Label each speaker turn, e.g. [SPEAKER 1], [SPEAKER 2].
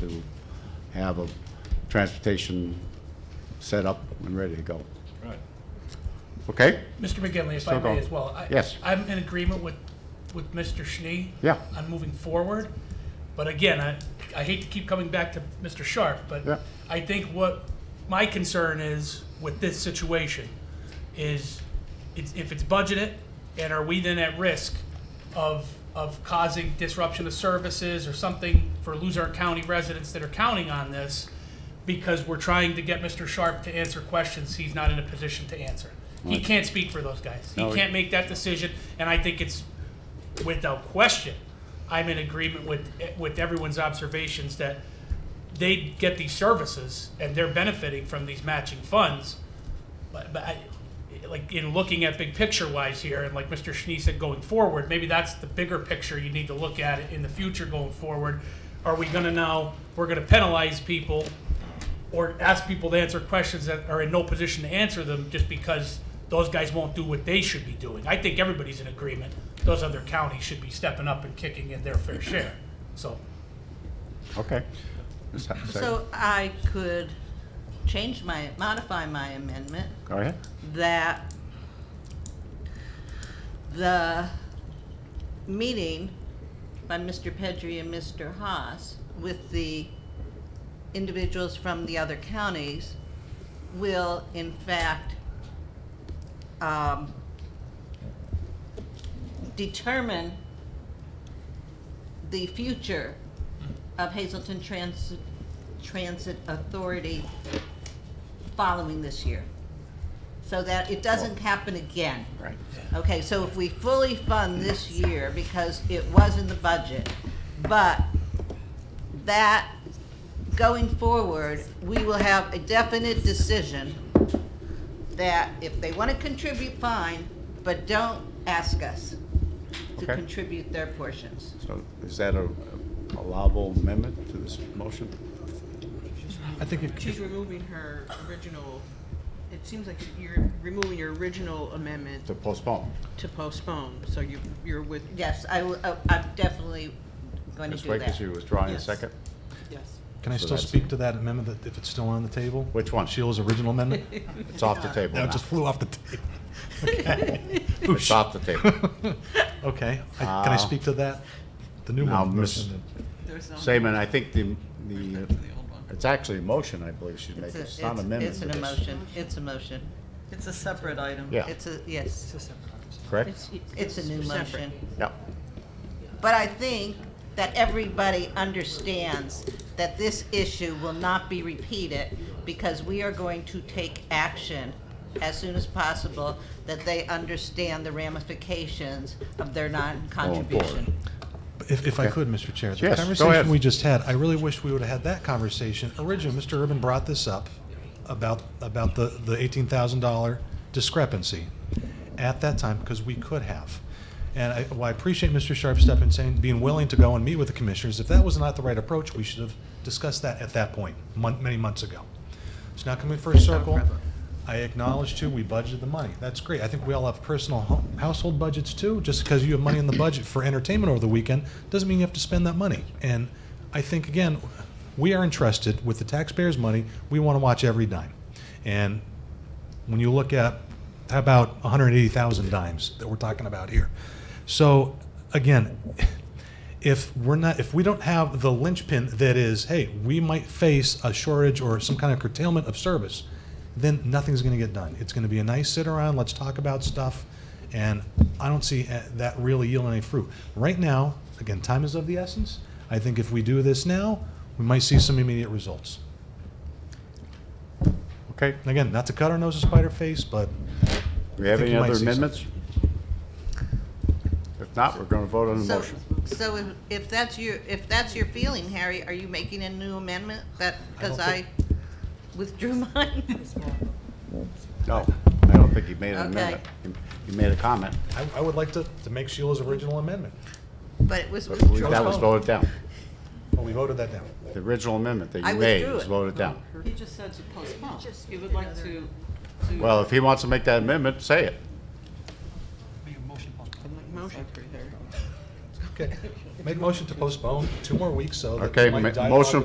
[SPEAKER 1] to have a transportation set up and ready to go.
[SPEAKER 2] Right.
[SPEAKER 1] Okay?
[SPEAKER 3] Mr. McGinley, if
[SPEAKER 1] So
[SPEAKER 3] I
[SPEAKER 1] go.
[SPEAKER 3] may as well. I-
[SPEAKER 1] Yes.
[SPEAKER 3] I'm in agreement with, with Mr. Schnee.
[SPEAKER 1] Yeah.
[SPEAKER 3] On moving forward, but again, I, I hate to keep coming back to Mr. Sharp,
[SPEAKER 1] Yeah.
[SPEAKER 3] but I think what my concern is with this situation is it's, if it's budgeted, and are we then at risk of, of causing disruption of services or something for Luzerne County residents that are counting on this? Because we're trying to get Mr. Sharp to answer questions he's not in a position to answer. He
[SPEAKER 1] Right.
[SPEAKER 3] can't speak for those guys.
[SPEAKER 1] No,
[SPEAKER 3] He
[SPEAKER 1] he-
[SPEAKER 3] can't make that decision, and I think it's without question, I'm in agreement with, with everyone's observations that they get these services and they're benefiting from these matching funds. But, but I, like in looking at big picture wise here, and like Mr. Schnee said, going forward, maybe that's the bigger picture you need to look at in the future going forward. Are we gonna now, we're gonna penalize people or ask people to answer questions that are in no position to answer them just because those guys won't do what they should be doing. I think everybody's in agreement. Those other counties should be stepping up and kicking in their fair share. So,
[SPEAKER 1] Okay. Just have a second.
[SPEAKER 4] So I could change my, modify my amendment
[SPEAKER 1] Go ahead.
[SPEAKER 4] that the meeting by Mr. Pedri and Mr. Haas with the individuals from the other counties will in fact um, determine the future of Hazelton Transit, Transit Authority following this year, so that it doesn't happen again.
[SPEAKER 1] Right.
[SPEAKER 4] Okay, so if we fully fund this year, because it was in the budget, but that, going forward, we will have a definite decision that if they want to contribute, fine, but don't ask us to
[SPEAKER 1] Okay.
[SPEAKER 4] contribute their portions.
[SPEAKER 1] So is that a allowable amendment to this motion?
[SPEAKER 5] I think it,
[SPEAKER 6] She's removing her original, it seems like you're removing your original amendment
[SPEAKER 1] To postpone?
[SPEAKER 6] to postpone, so you, you're with,
[SPEAKER 4] Yes, I, will- I- I'm definitely going to
[SPEAKER 1] Ms.
[SPEAKER 4] do that.
[SPEAKER 1] Wakers, you withdrawing a
[SPEAKER 6] Yes.
[SPEAKER 1] second?
[SPEAKER 6] yes.
[SPEAKER 5] can I
[SPEAKER 1] So
[SPEAKER 5] still
[SPEAKER 1] that's-
[SPEAKER 5] speak to that amendment that, if it's still on the table?
[SPEAKER 1] Which one?
[SPEAKER 5] Sheila's original amendment?
[SPEAKER 1] It's off the table
[SPEAKER 5] That
[SPEAKER 1] now.
[SPEAKER 5] just flew off the table.
[SPEAKER 1] It's off the table.
[SPEAKER 5] Okay, I- can I
[SPEAKER 1] Uh,
[SPEAKER 5] speak to that? The new
[SPEAKER 1] now,
[SPEAKER 5] one.
[SPEAKER 1] Miss-
[SPEAKER 6] There's no-
[SPEAKER 1] Seaman, I think the, the,
[SPEAKER 6] The old one.
[SPEAKER 1] it's actually a motion, I believe she's
[SPEAKER 4] It's
[SPEAKER 1] making.
[SPEAKER 4] a-
[SPEAKER 1] It's not an
[SPEAKER 4] it's-
[SPEAKER 1] amendment
[SPEAKER 4] It's
[SPEAKER 1] to
[SPEAKER 4] an
[SPEAKER 1] this.
[SPEAKER 4] emotion, it's a motion.
[SPEAKER 7] It's a separate item.
[SPEAKER 1] Yeah,
[SPEAKER 4] It's a, yes,
[SPEAKER 1] correct?
[SPEAKER 4] it's a new
[SPEAKER 6] Separate.
[SPEAKER 4] motion.
[SPEAKER 1] Yeah.
[SPEAKER 4] But I think that everybody understands that this issue will not be repeated because we are going to take action as soon as possible that they understand the ramifications of their non-contribution.
[SPEAKER 5] If, if I could, Mr. Chair,
[SPEAKER 1] Yes,
[SPEAKER 5] the
[SPEAKER 1] go ahead.
[SPEAKER 5] conversation we just had, I really wish we would have had that conversation. Originally, Mr. Urban brought this up about, about the, the eighteen thousand dollar discrepancy at that time, because we could have. And I, well, I appreciate Mr. Sharp's step in saying, being willing to go and meet with the commissioners. If that was not the right approach, we should have discussed that at that point, mon- many months ago. It's not coming first circle. I acknowledge too, we budgeted the money. That's great. I think we all have personal ho- household budgets too. Just because you have money in the budget for entertainment over the weekend doesn't mean you have to spend that money. And I think again, we are entrusted with the taxpayers' money. We want to watch every dime. And when you look at how about 180,000 dimes that we're talking about here. So again, if we're not if we don't have the linchpin that is, hey, we might face a shortage or some kind of curtailment of service, then nothing's going to get done. It's going to be a nice sit around, let's talk about stuff, and I don't see uh, that really yielding any fruit. Right now, again, time is of the essence. I think if we do this now, we might see some immediate results.
[SPEAKER 1] Okay.
[SPEAKER 5] And Again, not to cut our nose to spider face, but
[SPEAKER 1] Do we have
[SPEAKER 5] think
[SPEAKER 1] any
[SPEAKER 5] you might
[SPEAKER 1] other
[SPEAKER 5] see
[SPEAKER 1] amendments? If not, we're going to vote on the
[SPEAKER 4] So,
[SPEAKER 1] motion.
[SPEAKER 4] so if- if that's your, if that's your feeling, Harry, are you making a new amendment that, because
[SPEAKER 5] I
[SPEAKER 4] I
[SPEAKER 5] don't
[SPEAKER 4] withdrew mine?
[SPEAKER 1] No, I don't think he made an
[SPEAKER 4] Okay.
[SPEAKER 1] amendment. He- He made a comment,
[SPEAKER 5] I, I would like to, to make Sheila's original amendment.
[SPEAKER 4] But it was
[SPEAKER 1] but we-
[SPEAKER 4] withdrawn.
[SPEAKER 1] that was voted down.
[SPEAKER 5] Well, we voted that down.
[SPEAKER 1] The original amendment that
[SPEAKER 4] I
[SPEAKER 1] you made
[SPEAKER 4] withdrew
[SPEAKER 1] was
[SPEAKER 4] it.
[SPEAKER 1] voted down.
[SPEAKER 7] He just said to postpone. He would like to, to.
[SPEAKER 1] Well, if he wants to make that amendment, say it.
[SPEAKER 6] Like Motion for her.
[SPEAKER 5] Okay. Make motion to postpone two more weeks so that.
[SPEAKER 1] Okay,
[SPEAKER 5] we might
[SPEAKER 1] ma-
[SPEAKER 5] dialogue
[SPEAKER 1] motion